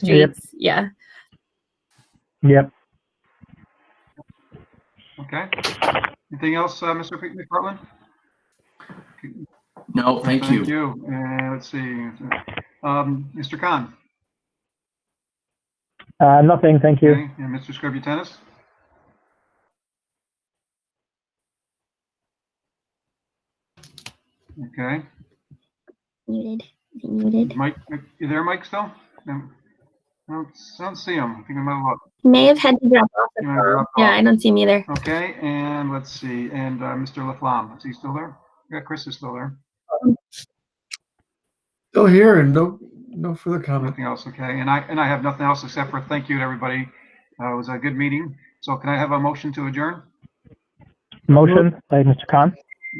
Yep. streets. Yeah. Yep. Okay. Anything else, uh, Mr. Mc- McPartlin? No, thank Thank you. you. Uh, Let's see. Um, Mr. Khan? Uh, nothing, thank you. Okay, And Mr. Scrubby Tennis? Okay. Muted. Is he muted? Mike, you there, Mike, still? No. I don't, I don't see him. I think I might have lost. He may have had to drop off. He the might have call. dropped Yeah, off. I don't see him either. Okay, and let's see, and uh, Mr. Laflamme, is he still there? Yeah, Chris is still there. Still here and no, no further comment. Nothing else, okay, and I, and I have nothing else except for thank you to everybody. Uh, It was a good meeting. So can I have a motion to adjourn? Motion by Mr. Khan.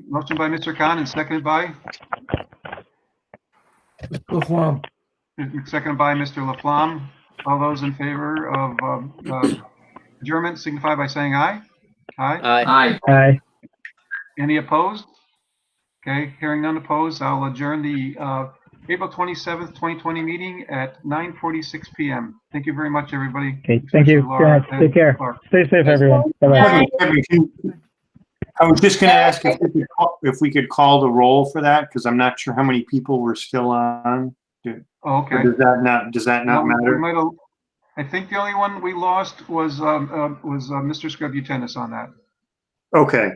Motion by Mr. Khan and seconded by, Still flum. seconded by Mr. Laflamme. All those in favor of um, uh, adjournment signify by saying aye. Aye. Aye. Aye. Aye. Any opposed? Okay, hearing none opposed, I'll adjourn the uh, April 27th, 2020 meeting at 9:46 PM. Thank you very much, everybody. Okay, thank you. Especially Good Laura night. and Take care. Clark. Stay safe, everyone. Bye-bye. Bye. I was just gonna ask if we could call- if we could call the roll for that, because I'm not sure how many people were still on. Oh, Okay. Or Does that not, does that not No, we matter? might have- I think the only one we lost was, um, uh, was uh, Mr. Scrubbutennis on that. Okay,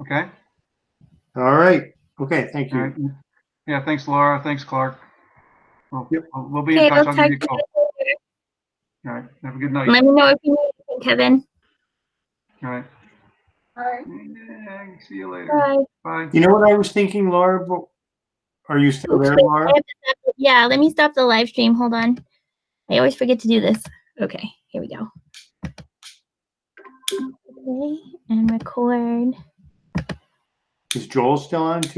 Okay? all right. Okay, thank All you. right. Yeah, thanks Laura, thanks Clark. We'll Yep. we'll be Okay, in touch. I'll I'll give talk to you a you call. later. All right, have a good night. Let me know if you need anything, Kevin. All right. All right. Yeah, See you later. Bye. Bye. You know what I was thinking, Laura? But- Are you still there, Laura? Yeah, let me stop the live stream. Hold on. I always forget to do this. Okay, here we go. Okay, and record. Is Joel still on too?